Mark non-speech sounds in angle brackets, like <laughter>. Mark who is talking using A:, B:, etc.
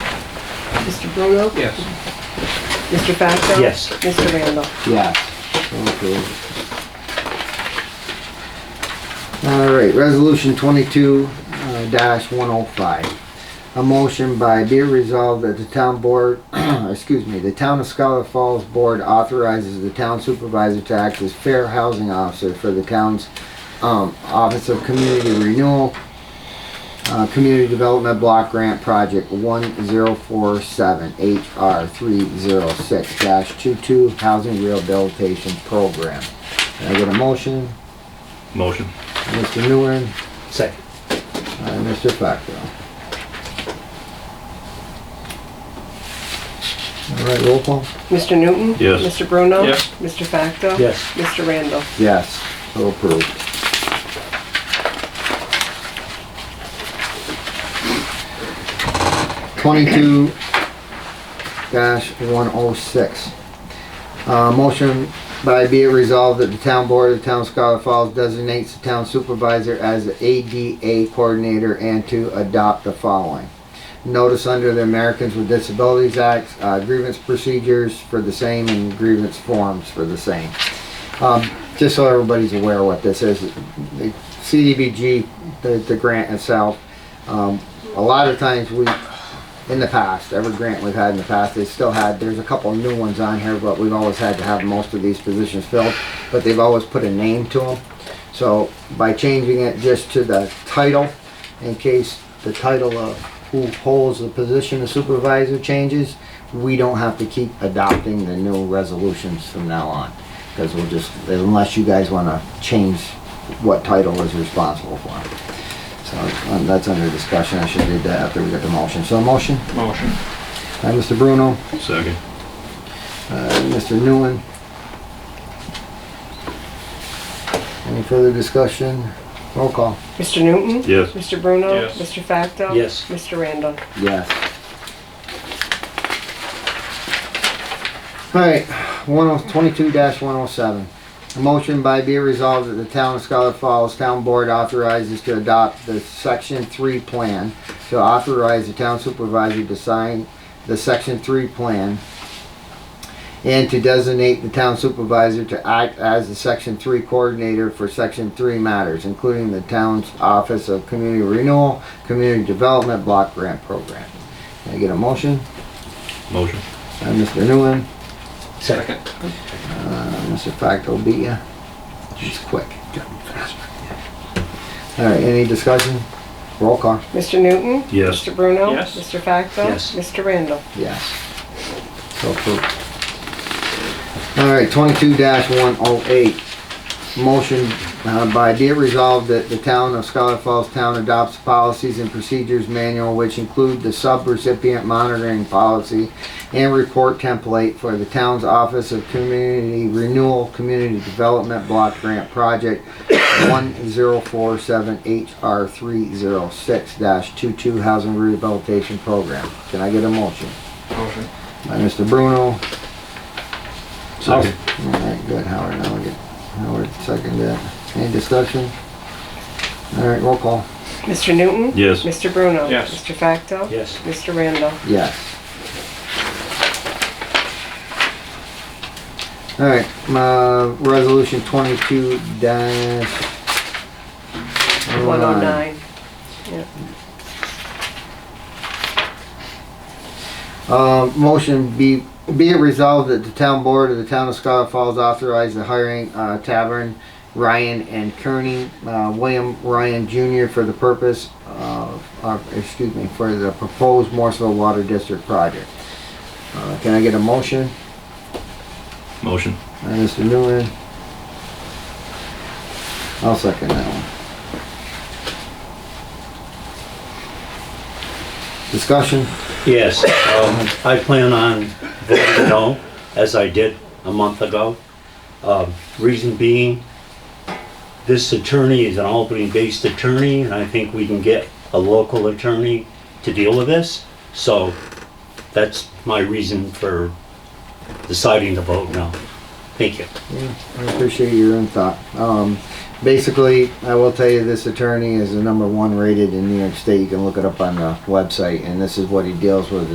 A: Mr. Bruno?
B: Yes.
A: Mr. Facto?
C: Yes.
A: Mr. Randall?
D: Yes. Okay. All right, resolution twenty-two uh, dash one oh five. A motion by be it resolved that the town board, <clears throat> excuse me, the town of Scholar Falls Board authorizes the town supervisor to act as fair housing officer for the town's um, Office of Community Renewal, uh, Community Development Block Grant Project one zero four seven HR three zero six dash two-two Housing Rehabilitation Program. Can I get a motion?
C: Motion.
D: Mr. Nguyen,
C: Second.
D: and Mr. Facto. All right, roll call.
A: Mr. Newton?
C: Yes.
A: Mr. Bruno?
B: Yes.
A: Mr. Facto?
C: Yes.
A: Mr. Randall?
D: Yes, so approved. Twenty-two dash one oh six. Uh, motion by be it resolved that the town board of the town of Scholar Falls designates the town supervisor as the ADA coordinator and to adopt the following. Notice under the Americans with Disabilities Act, uh, grievance procedures for the same and grievance forms for the same. Um, just so everybody's aware of what this is, the CDBG, the, the grant itself, um, a lot of times we, in the past, every grant we've had in the past, they still had, there's a couple new ones on here, but we've always had to have most of these positions filled, but they've always put a name to them. So by changing it just to the title, in case the title of who holds the position of supervisor changes, we don't have to keep adopting the new resolutions from now on. Because we'll just, unless you guys want to change what title is responsible for. So um, that's under discussion. I should read that after we get the motion. So motion
B: Motion.
D: by Mr. Bruno,
C: Second.
D: uh, Mr. Newland. Any further discussion? Roll call.
A: Mr. Newton?
C: Yes.
A: Mr. Bruno?
B: Yes.
A: Mr. Facto?
C: Yes.
A: Mr. Randall?
D: Yes. Alright, one oh, twenty-two dash one oh seven. A motion by be resolved that the town of Scholar Falls Town Board authorizes to adopt the section three plan to authorize the town supervisor to sign the section three plan and to designate the town supervisor to act as the section three coordinator for section three matters, including the town's Office of Community Renewal, Community Development Block Grant Program. Can I get a motion?
C: Motion.
D: Uh, Mr. Newland,
C: Second.
D: uh, Mr. Facto beat ya. She's quick. All right, any discussion? Roll call.
A: Mr. Newton?
C: Yes.
A: Mr. Bruno?
B: Yes.
A: Mr. Facto?
C: Yes.
A: Mr. Randall?
D: Yes. So approved. All right, twenty-two one oh eight. Motion uh, by be it resolved that the town of Scholar Falls Town adopts policies and procedures manual which include the sub-recipient monitoring policy and report template for the town's Office of Community Renewal Community Development Block Grant Project one zero four seven HR three zero six dash two-two Housing Rehabilitation Program. Can I get a motion?
B: Motion.
D: By Mr. Bruno.
C: Second.
D: All right, good, Howard, now we get, Howard seconded it. Any discussion? All right, roll call.
A: Mr. Newton?
C: Yes.
A: Mr. Bruno?
B: Yes.
A: Mr. Facto?
C: Yes.
A: Mr. Randall?
D: Yes. All right, uh, resolution twenty-two dash.
A: 109.
D: Um, motion be, be it resolved that the town board of the town of Scholar Falls authorize the hiring, uh, Tavern Ryan and Kearney, uh, William Ryan Jr. for the purpose of, of, excuse me, for the proposed Morseville Water District project. Uh, can I get a motion?
C: Motion.
D: Uh, Mr. Newman? I'll second that one. Discussion?
E: Yes, um, I plan on voting no, as I did a month ago. Um, Reason being, this attorney is an Albany-based attorney, and I think we can get a local attorney to deal with this. So that's my reason for deciding to vote no. Thank you.
D: I appreciate your own thought. Um, basically, I will tell you this attorney is the number one rated in New York State. You can look it up on the website, and this is what he deals with.